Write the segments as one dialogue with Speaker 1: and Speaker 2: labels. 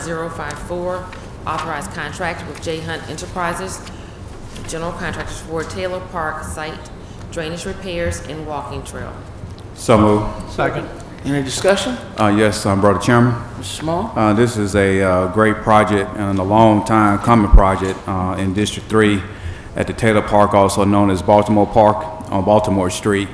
Speaker 1: 21054, authorized contract with J Hunt Enterprises, general contractors for Taylor Park site drainage repairs and walking trail.
Speaker 2: So moved.
Speaker 3: Second.
Speaker 4: Any discussion?
Speaker 2: Uh, Yes, um, Brother Chairman,
Speaker 4: Mr. Small?
Speaker 2: uh, this is a uh, great project and a long time coming project uh, in District 3 at the Taylor Park, also known as Baltimore Park on Baltimore Street.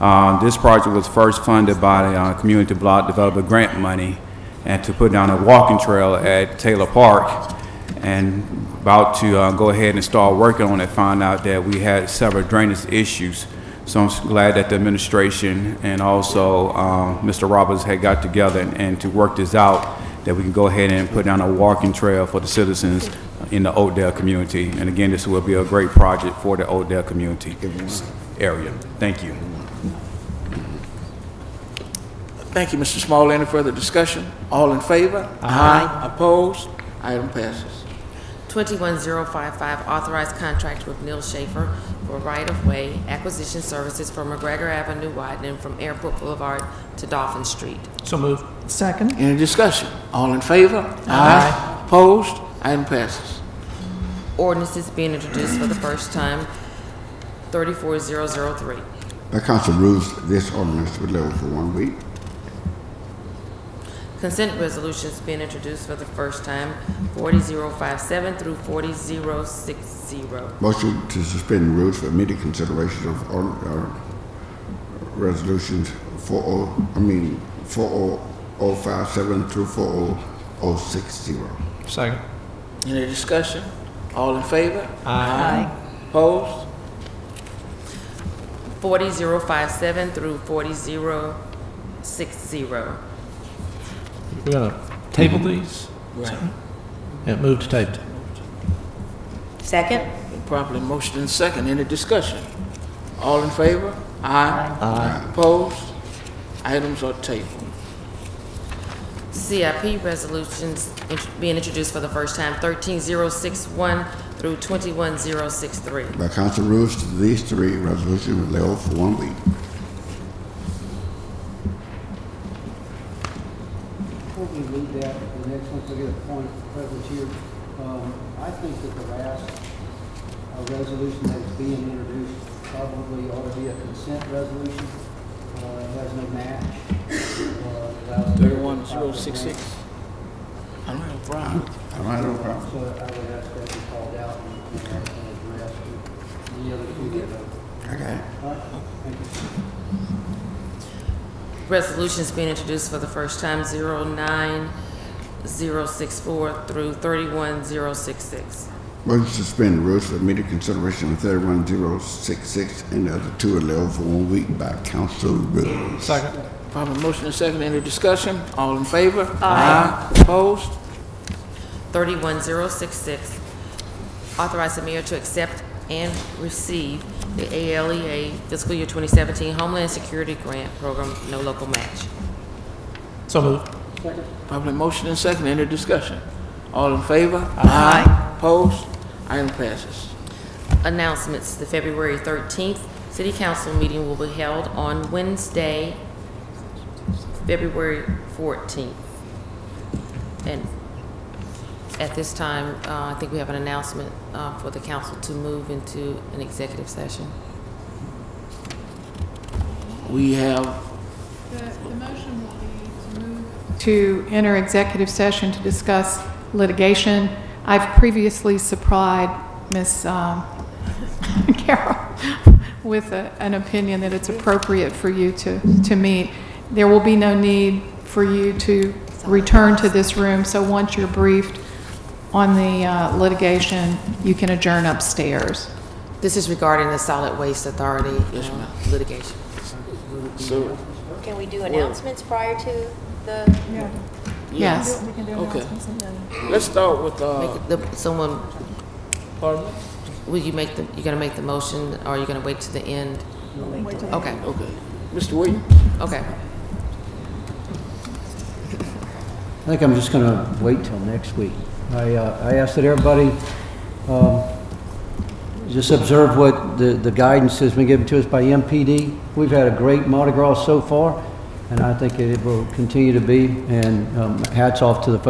Speaker 2: Uh, This project was first funded by the uh, Community Block Developer Grant money and to put down a walking trail at Taylor Park. and about to uh, go ahead and start working on it, found out that we had several drainage issues. So I'm s- glad that the administration and also uh, Mr. Roberts had got together and- and to work this out, that we can go ahead and put down a walking trail for the citizens in the Oakdale community. And again, this will be a great project for the Oakdale community s- area. Thank you.
Speaker 4: Thank you, Mr. Small. Any further discussion? All in favor? Aye. Opposed? Item passes.
Speaker 1: 21055, authorized contract with Neil Schaefer for right-of-way acquisition services for McGregor Avenue widening from Airport Boulevard to Dolphin Street.
Speaker 3: So moved.
Speaker 5: Second.
Speaker 4: Any discussion? All in favor? Aye. Opposed? Item passes.
Speaker 1: Ordinances being introduced for the first time, 34003.
Speaker 6: The council moves this ordinance to be level for one week.
Speaker 1: Consent resolutions being introduced for the first time, 40057 through 40060.
Speaker 6: Motion to suspend rules for immediate consideration of all, uh, resolutions four oh, I mean, four oh oh five seven through four oh oh six zero.
Speaker 3: Second.
Speaker 4: Any discussion? All in favor?
Speaker 3: Aye.
Speaker 4: Opposed?
Speaker 1: 40057 through 40060.
Speaker 3: We're going to table these?
Speaker 4: Right.
Speaker 3: Yeah, move to table.
Speaker 7: Second?
Speaker 4: Been Properly motioned and second. Any discussion? All in favor? Aye. Aye. Opposed? Items are tabled.
Speaker 1: CIP resolutions int- being introduced for the first time, 13061 through 21063.
Speaker 6: The council moves to these three resolutions with level for one week.
Speaker 8: Before we move that, to the next one, so we get a point present here, um, I think that the last uh, resolution that's being introduced probably ought to be a consent resolution. Uh, it has no match. Uh, allows-
Speaker 4: 31066. I don't have a problem.
Speaker 6: All right, no problem.
Speaker 8: So I would ask that be called out and and addressed. The other two get a,
Speaker 6: Okay.
Speaker 8: all right, thank you.
Speaker 1: Resolutions being introduced for the first time, 09064 through 31066.
Speaker 6: Motion to suspend rules for immediate consideration of thirty-one zero six six and the other two are level for one week by council rules.
Speaker 3: Second.
Speaker 4: Properly motioned and second. Any discussion? All in favor? Aye. Opposed?
Speaker 1: 31066, authorize the mayor to accept and receive the ALEA Fiscal Year 2017 Homeland Security Grant Program, no local match.
Speaker 3: So moved.
Speaker 4: Properly motioned and second. Any discussion? All in favor? Aye. Opposed? Item passes.
Speaker 1: Announcements, the February 13th City Council meeting will be held on Wednesday, February 14th. And at this time, uh, I think we have an announcement uh, for the council to move into an executive session.
Speaker 4: We have
Speaker 5: To enter executive session to discuss litigation. I've previously supplied Ms. um, Carol with a- an opinion that it's appropriate for you to, to meet. There will be no need for you to return to this room, so once you're briefed on the uh, litigation, you can adjourn upstairs.
Speaker 1: This is regarding the Solid Waste Authority uh, litigation.
Speaker 7: Can we do announcements prior to the?
Speaker 5: Yes.
Speaker 4: Okay. Let's start with, uh,
Speaker 1: The- Someone,
Speaker 4: pardon me?
Speaker 1: will you make the, you gonna make the motion, or are you gonna wait to the end? Okay,
Speaker 4: Okay. Mr. Williams?
Speaker 1: okay.
Speaker 8: I think I'm just going to wait till next week. I, uh, I ask that everybody um, just observe what the, the guidance has been given to us by MPD. We've had a great Mardi Gras so far, and I think it will continue to be, and um, hats off to the folks